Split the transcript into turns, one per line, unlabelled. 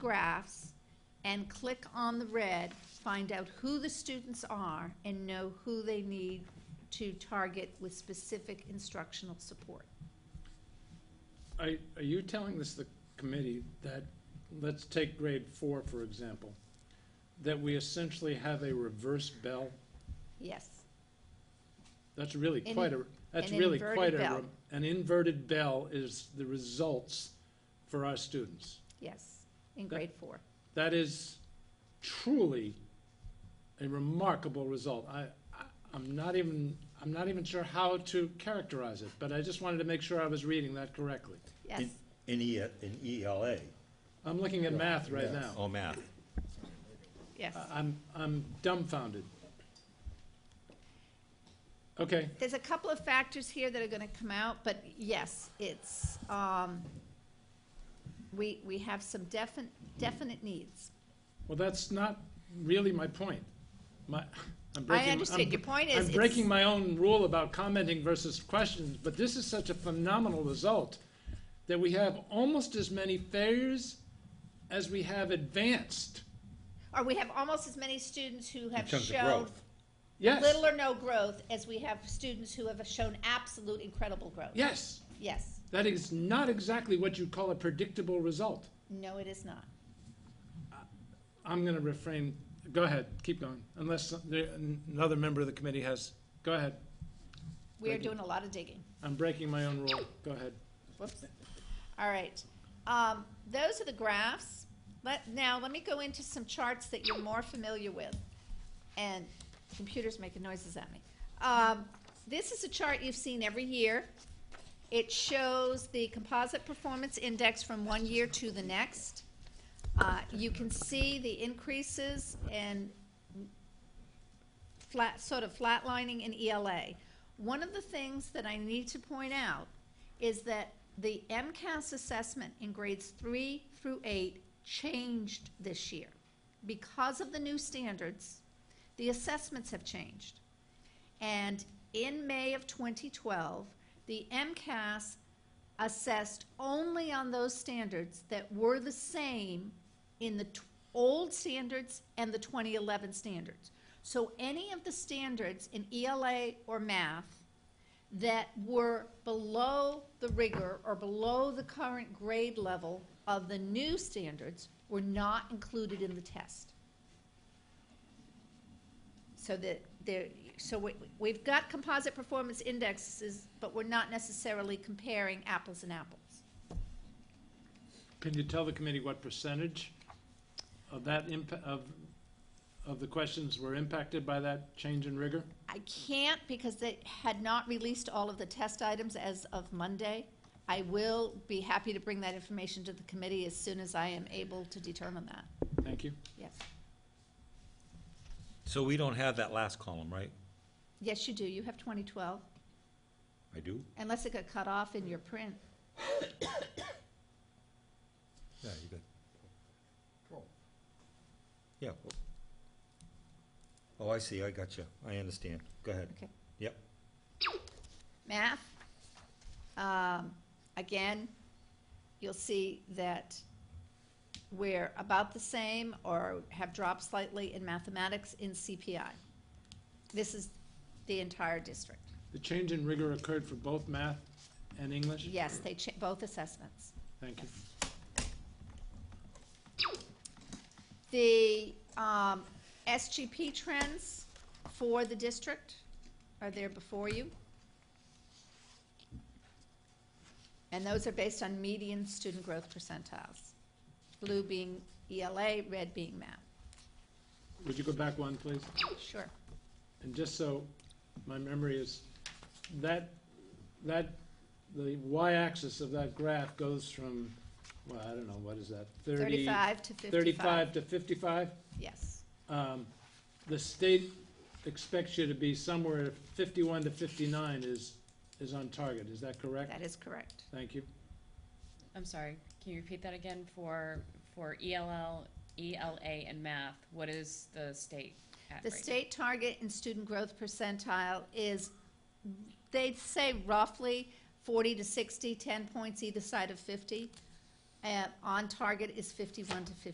graphs and click on the red, find out who the students are and know who they need to target with specific instructional support.
Are, are you telling this, the committee, that, let's take grade four, for example, that we essentially have a reverse bell?
Yes,
That's really
An-
quite a, that's
an
really
inverted
quite a,
bell.
re- an inverted bell is the results for our students.
yes, in
That-
grade four.
That is truly a remarkable result. I, I, I'm not even, I'm not even sure how to characterize it, but I just wanted to make sure I was reading that correctly.
Yes,
In E, in ELA.
I'm looking at math right now.
Oh, math.
yes.
I- I'm, I'm dumbfounded. Okay,
There's a couple of factors here that are gonna come out, but yes, it's, um, we, we have some definite, definite needs.
well, that's not really my point. My, I'm breaking.
I understand,
I'm-
your point is,
I'm
it's,
breaking my own rule about commenting versus questions, but this is such a phenomenal result that we have almost as many failures as we have advanced.
or we have almost as many students who have
terms of
shown
growth.
Yes,
little or no growth as we have students who have shown absolute incredible growth.
yes,
Yes,
that is not exactly what you call a predictable result.
no, it is not.
I'm going to refrain. Go ahead, keep going, unless some- there- another member of the committee has. Go ahead.
We are
Thank you.
doing a lot of digging.
I'm breaking my own rule. Go ahead.
Whoops. All right. Um, those are the graphs. Let, now, let me go into some charts that you're more familiar with. And computer's making noises at me. Um, this is a chart you've seen every year. It shows the composite performance index from one year to the next. Uh, you can see the increases and flat, sort of flatlining in ELA. One of the things that I need to point out is that the MCAS assessment in grades three through eight changed this year. Because of the new standards, the assessments have changed. And in May of 2012, the MCAS assessed only on those standards that were the same in the t- old standards and the 2011 standards. So any of the standards in ELA or math that were below the rigor or below the current grade level of the new standards were not included in the test. So that there, so we, we've got composite performance indexes, but we're not necessarily comparing apples and apples.
Can you tell the committee what percentage of that impa- of, of the questions were impacted by that change in rigor?
I can't because they had not released all of the test items as of Monday. I will be happy to bring that information to the committee as soon as I am able to determine that,
Thank you.
yes.
So we don't have that last column, right?
Yes, you do, you have twenty twelve,
I do?
unless it got cut off in your print.
Yeah, you got. Yeah. Oh, I see, I got you, I understand, go ahead.
Okay.
Yep,
math. Um, again, you'll see that we're about the same or have dropped slightly in mathematics in CPI. This is the entire district.
The change in rigor occurred for both math and English?
Yes, they cha- both assessments.
Thank you.
The, um, SGP trends for the district are there before you. And those are based on median student growth percentiles. Blue being ELA, red being math.
Would you go back one, please?
Sure.
And just so my memory is, that, that, the y-axis of that graph goes from, well, I don't know, what is that? 30
Thirty-five to fifty-five.
Thirty-five to fifty-five?
Yes,
um, the state expects you to be somewhere fifty-one to fifty-nine is, is on target, is that correct?
that is correct.
Thank you.
I'm sorry, can you repeat that again for, for E ELL, ELA, E and math? What is the state at right now?
The state target in student growth percentile is, they say roughly forty to 60, 10 points either side of fifty. And on target is fifty-one to fifty.